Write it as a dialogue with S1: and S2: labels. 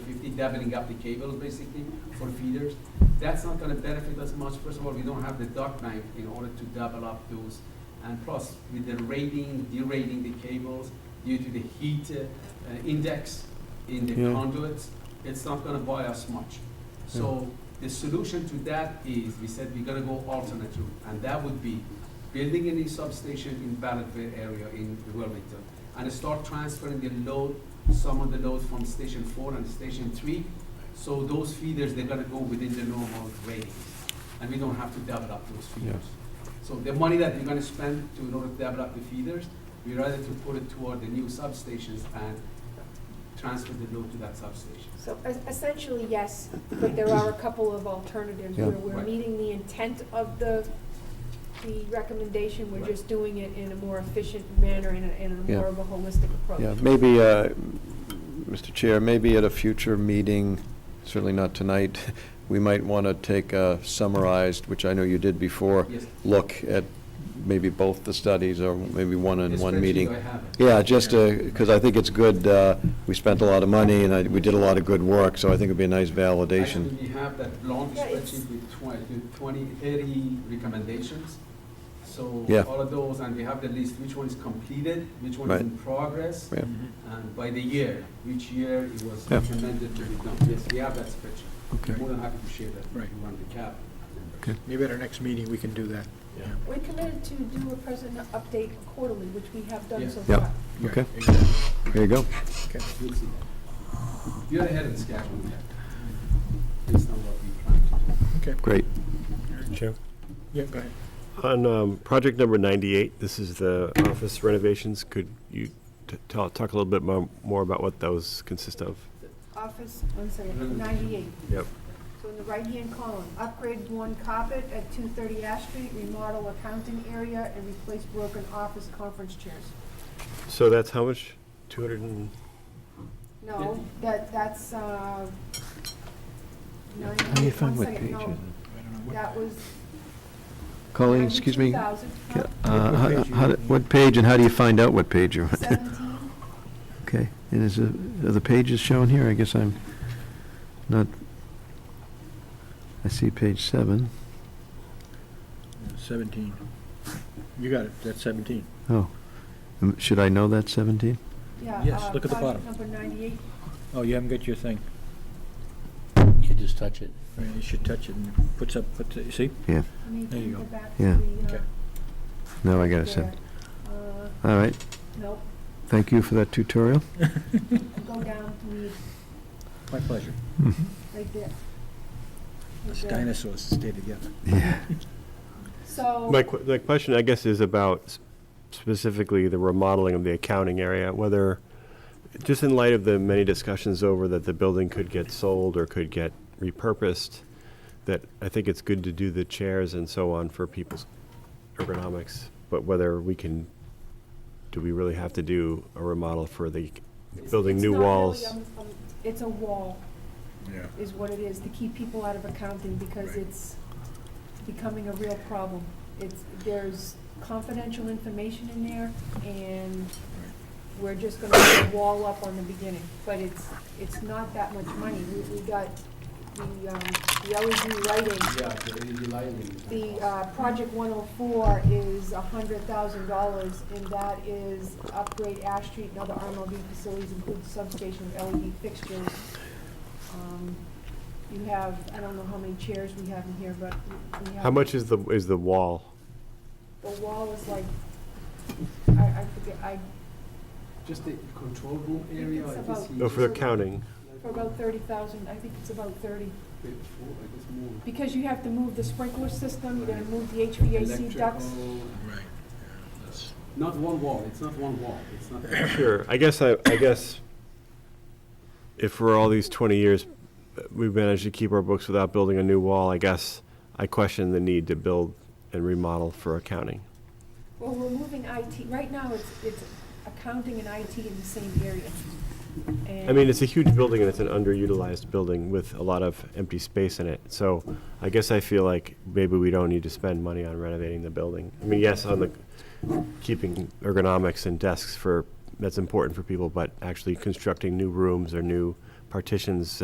S1: doubling up the cables basically for feeders. That's not gonna benefit us much. First of all, we don't have the duct knife in order to double up those. And plus, with the rating, derating the cables due to the heat uh, uh, index in the
S2: Yeah.
S1: conduits, it's not gonna buy us much. So the solution to that is, we said we're gonna go alternate route, and that would be building a new substation in Ballardville area in Wilmington, and start transferring the load, some of the load from Station Four and Station Three, so those feeders, they're gonna go within the normal ratings, and we don't have to double up those feeders. So the money that we're gonna spend to, in order to develop the feeders, we rather to put it toward the new substations and transfer the load to that substation.
S3: So es- essentially, yes, but there are a couple of alternatives
S2: Yeah.
S3: where we're
S1: Right.
S3: meeting the intent of the, the recommendation, we're
S1: Right.
S3: just doing it in a more efficient manner and a, and a
S2: Yeah.
S3: more of a holistic approach.
S2: Yeah, maybe, uh, Mr. Chair, maybe at a future meeting, certainly not tonight, we might want to take a summarized, which I know you did before,
S1: Yes.
S2: look at maybe both the studies or maybe one in
S1: The
S2: one
S1: spreadsheet,
S2: meeting.
S1: I have it.
S2: Yeah, just because I think it's good, uh, we spent a lot of money and I- we did a lot of good work, so I think it'd be a nice validation.
S1: Actually, we have that long
S3: Yeah, it's-
S1: spreadsheet with 20 20, 30 recommendations. So
S2: Yeah.
S1: all of those, and we have the list, which one is completed, which one
S2: Right.
S1: is in progress,
S2: Yeah.
S4: Mm-hmm.
S1: and by the year, which year it was
S2: Yeah.
S1: recommended to be done. Yes, we have that spreadsheet.
S4: Okay.
S1: More than happy to share that if
S4: Right.
S1: you want the cap.
S4: Maybe at our next meeting, we can do that.
S3: We're committed to do a present update quarterly, which we have
S1: Yeah.
S3: done so
S2: Yeah.
S3: far.
S2: Okay.
S4: Exactly.
S2: There you go.
S1: You'll see that. You're ahead of the schedule there, based on what we planned to do.
S2: Great.
S5: Chair.
S4: Yeah, go ahead.
S5: On um, project number 98, this is the office renovations. Could you t- tell- talk a little bit mo- more about what those consist of?
S3: Office, one second, ninety-eight.
S5: Yep.
S3: So in the right-hand column, upgrade one carpet at two thirty Ash Street, remodel accounting area, and replace broken office conference chairs.
S5: So that's how much? 200 and,
S3: No, that, that's, uh, nine,
S2: How do you
S3: one
S2: find what
S3: second,
S2: page
S3: no,
S4: I don't know what-
S3: that was
S2: Colleen, excuse me? Uh,
S3: 92,000, huh?
S2: how- how- What page and how do you find out what page you're on?
S3: Seventeen,
S2: Okay, and is, it- are the pages shown here? I guess I'm not, I see page seven.
S4: Seventeen. You got it, that's seventeen.
S2: Oh, Um, should I know that 17?
S3: yeah.
S4: Yes,
S3: uh,
S4: look at the
S3: project
S4: bottom.
S3: Number ninety-eight,
S4: Oh, you haven't got your thing.
S6: You just touch it.
S4: I mean, You should touch it and puts up, puts, it- see?
S3: maybe
S4: There you
S3: go
S4: go.
S3: back
S2: Yeah.
S3: to the, uh,
S4: Okay.
S2: No, I got a
S3: there.
S2: 7.
S3: Uh,
S2: All right,
S3: nope,
S2: thank you for that tutorial.
S3: go down to me,
S4: My pleasure.
S3: right there. Right
S4: Us
S3: there.
S4: Dinosaurs stay together.
S2: Yeah.
S3: So.
S5: my que- my question, I guess, is about s- specifically the remodeling of the accounting area, whether, just in light of the many discussions over that the building could get sold or could get repurposed, that I think it's good to do the chairs and so on for people's ergonomics, but whether we can, do we really have to do a remodel for the building
S3: It's
S5: new
S3: not really,
S5: walls?
S3: um, um, It's a wall.
S4: Yeah.
S3: is what it is, to keep people out of accounting, because it's becoming a real problem. It's, there's confidential information in there, and we're just gonna put a wall up on the beginning, but it's, it's not that much money. We, we got the, um, the LED lighting,
S1: Yeah, the LED lighting.
S3: the, uh, project one oh four is a hundred thousand dollars, and that is upgrade Ash Street and other RMLD facilities, including substation with LED fixtures. Um, You have, I don't know how many chairs we have in here, but we- we have.
S5: How much is the, is the wall?
S3: The wall is like, I, I forget, I,
S1: Just the control room
S3: think
S1: area,
S3: it's
S1: I
S3: about-
S1: guess. he-
S5: Oh, for the counting?
S3: for about thirty thousand, I think it's about thirty.
S1: Bit four, I guess more.
S3: Because you have to move the sprinkler system, you're gonna move the HVAC ducts.
S1: Electrical.
S4: Right.
S1: Not one wall, it's not one wall, it's not.
S5: Sure, I guess, I, I guess if for all these twenty years, uh, we've managed to keep our books without building a new wall, I guess I question the need to build and remodel for accounting.
S3: Well, we're moving IT, right now, it's, it's accounting and IT in the same area.
S5: I mean, it's a huge building and it's an underutilized building with a lot of empty space in it. So I guess I feel like maybe we don't need to spend money on renovating the building. I mean, yes, on the, keeping ergonomics and desks for, that's important for people, but actually constructing new rooms or new partitions